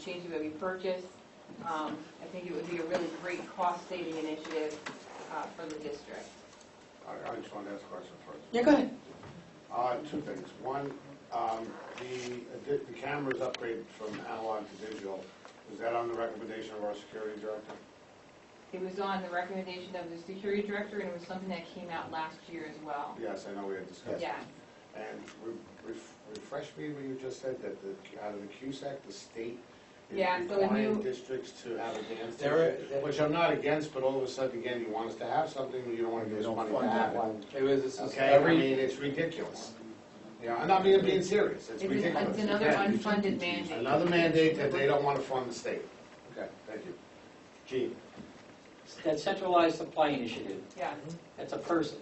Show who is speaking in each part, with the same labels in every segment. Speaker 1: machines that we purchased. Um, I think it would be a really great cost-saving initiative uh, for the district.
Speaker 2: I I just wanted to ask a question first.
Speaker 3: Yeah, go ahead.
Speaker 2: Uh, Two things. One, um, the addi- the cameras upgraded from analog to digital, was that on the recommendation of our security director?
Speaker 1: It was on the recommendation of the security director, and it was something that came out last year as well.
Speaker 2: Yes, I know we had discussed.
Speaker 1: Yeah,
Speaker 2: And re- ref- refresh me what you just said, that the, out of the CUSAC, the state is
Speaker 1: Yeah, so if
Speaker 2: requiring
Speaker 1: you-
Speaker 2: districts to have a dance
Speaker 4: There are-
Speaker 2: teacher, which I'm not against, but all of a sudden, again, you want us to have something, but you don't want to give us money to have it.
Speaker 4: It was, this is
Speaker 2: Okay, I mean,
Speaker 4: every,
Speaker 2: it's ridiculous. Yeah, I'm not being, being serious, it's
Speaker 1: It's-
Speaker 2: ridiculous.
Speaker 1: it's another
Speaker 2: Again,
Speaker 1: unfunded mandate.
Speaker 2: Another mandate that they don't want to fund the state. Okay, thank you. Gene?
Speaker 5: That centralized supply initiative,
Speaker 1: yeah.
Speaker 5: that's a person,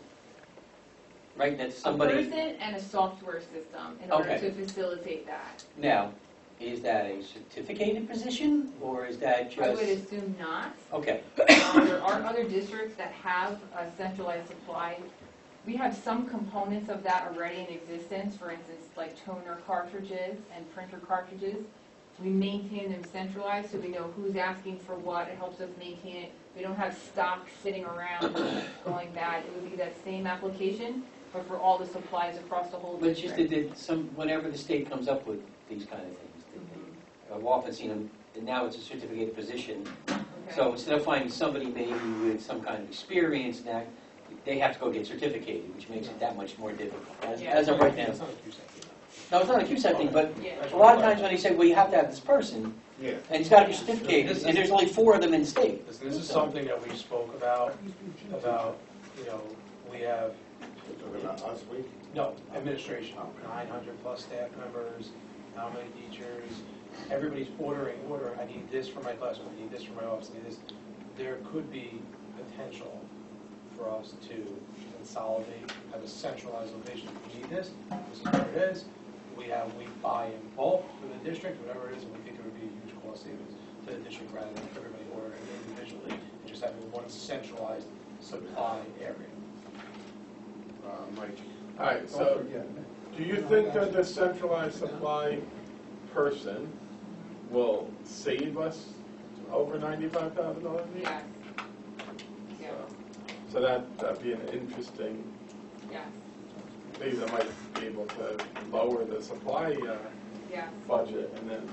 Speaker 5: right? That's
Speaker 1: A
Speaker 5: somebody.
Speaker 1: person and a software system in order
Speaker 5: Okay.
Speaker 1: to facilitate that.
Speaker 5: Now, is that a certificated position, or is that
Speaker 1: I would
Speaker 5: just?
Speaker 1: assume not.
Speaker 5: Okay,
Speaker 1: Um, There are other districts that have a centralized supply. We have some components of that already in existence, for instance, like toner cartridges and printer cartridges. We maintain them centralized, so we know who's asking for what, it helps us maintain it. We don't have stock sitting around going bad. It would be that same application, but for all the supplies across the whole
Speaker 5: but it's
Speaker 1: district.
Speaker 5: just that- that some, whatever the state comes up with, these kind of things.
Speaker 1: Mm-hmm.
Speaker 5: that they- I've often seen them, and now it's a certificated position.
Speaker 1: Okay.
Speaker 5: So instead of finding somebody maybe with some kind of experience and that, they have to go get certificated, which makes it that much more difficult, as,
Speaker 1: Yeah.
Speaker 5: as of right now.
Speaker 2: It's not a CUSAC.
Speaker 5: No, it's not a CUSAC thing, but
Speaker 1: Yeah,
Speaker 5: a lot of times when they say, well, you have to have this person,
Speaker 2: Yeah.
Speaker 5: And it's got to be certificated, and there's only four of them in the state.
Speaker 4: this this is something that we spoke about, about, you know, we have,
Speaker 2: You're Talking about us, we?
Speaker 4: no, administration, nine hundred plus staff members, how many teachers, everybody's ordering, ordering, I need this for my classroom, I need this for my office, I need this. There could be potential for us to consolidate, have a centralized location, we need this, this is where it is, we have, we buy in bulk for the district, whatever it is, and we think it would be a huge cost savings to the district rather than everybody ordering individually, and just having one centralized supply area.
Speaker 2: Uh, Mike?
Speaker 6: All right, so do you think that the centralized supply person will save us over ninety-five thousand dollars?
Speaker 1: yes. Yeah,
Speaker 6: So that, that'd be an interesting
Speaker 1: yes,
Speaker 6: thing that might be able to lower the supply uh,
Speaker 1: yes.
Speaker 6: budget and then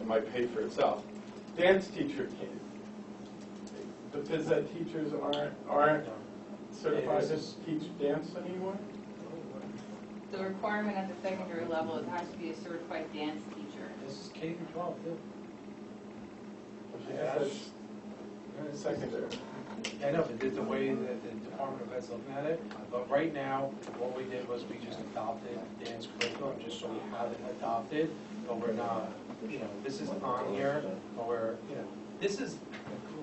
Speaker 6: it might pay for itself. Dance teacher can, the phys ed teachers aren't, aren't certified to teach dance anymore?
Speaker 1: The requirement at the secondary level is has to be a certified dance teacher.
Speaker 4: This is K through twelve, too.
Speaker 6: Yeah, that's Secondary.
Speaker 4: I know, but the- the way that the Department of Ed's looking at it, but right now, what we did was we just adopted dance curriculum, just so we have it adopted, but we're not, you know, this is on here, but we're, you know, this is,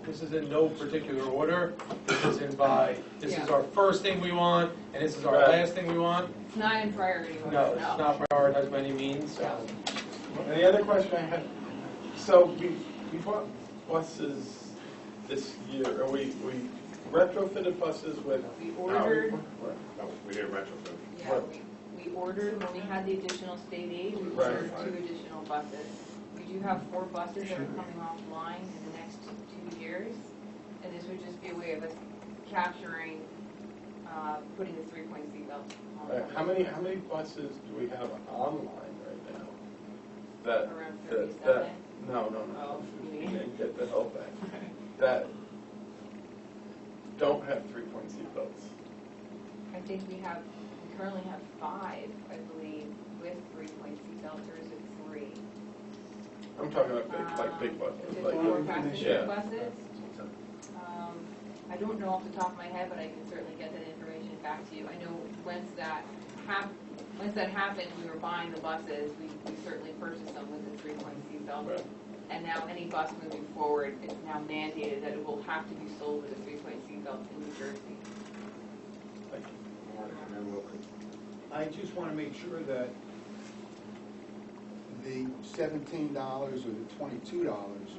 Speaker 4: this is in no particular order, this is in by, this is our first thing we want, and this is our last thing we want.
Speaker 1: It's not in priority order,
Speaker 4: No, it's not prioritized by any means, so.
Speaker 6: And the other question I had, so we, we bought buses this year, or we, we retrofitted buses with.
Speaker 1: We ordered,
Speaker 2: No, we didn't retrofit.
Speaker 1: yeah, we, we ordered, when we had the additional state aid, we
Speaker 6: Right.
Speaker 1: ordered two additional buses. We do have four buses that are coming offline in the next two years, and this would just be a way of us capturing, uh, putting the three-point seatbelt
Speaker 6: Right,
Speaker 1: on
Speaker 6: Uh, How many, how many buses do we have online right now? That,
Speaker 1: around
Speaker 6: that,
Speaker 1: thirty-seven.
Speaker 6: that, no, no, no,
Speaker 1: Oh, you
Speaker 6: we
Speaker 1: mean-
Speaker 6: didn't get the whole thing. That don't have three-point seatbelts.
Speaker 1: I think we have, we currently have five, I believe, with three-point seatbelts, or is it three?
Speaker 6: I'm talking about big, like big
Speaker 1: Is
Speaker 6: buses,
Speaker 1: Ah. it
Speaker 6: like.
Speaker 1: four passenger
Speaker 6: Yeah.
Speaker 1: buses? Um, I don't know off the top of my head, but I can certainly get that information back to you. I know once that hap, once that happened, we were buying the buses, we we certainly purchased them with the three-point seatbelt.
Speaker 6: Right.
Speaker 1: And now any bus moving forward is now mandated that it will have to be sold with a three-point seatbelt in New Jersey.
Speaker 2: Mark, and then Wilkie.
Speaker 7: I just want to make sure that the seventeen dollars or the twenty-two dollars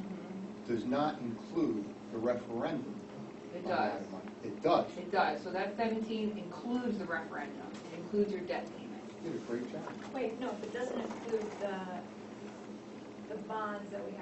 Speaker 7: does not include the referendum.
Speaker 1: Mm-hmm. It
Speaker 7: on
Speaker 1: does.
Speaker 7: that money. It does.
Speaker 1: It does, so that 17 includes the referendum, it includes your debt payment.
Speaker 7: You Did a great job.
Speaker 8: Wait, no, but doesn't include the the bonds that we have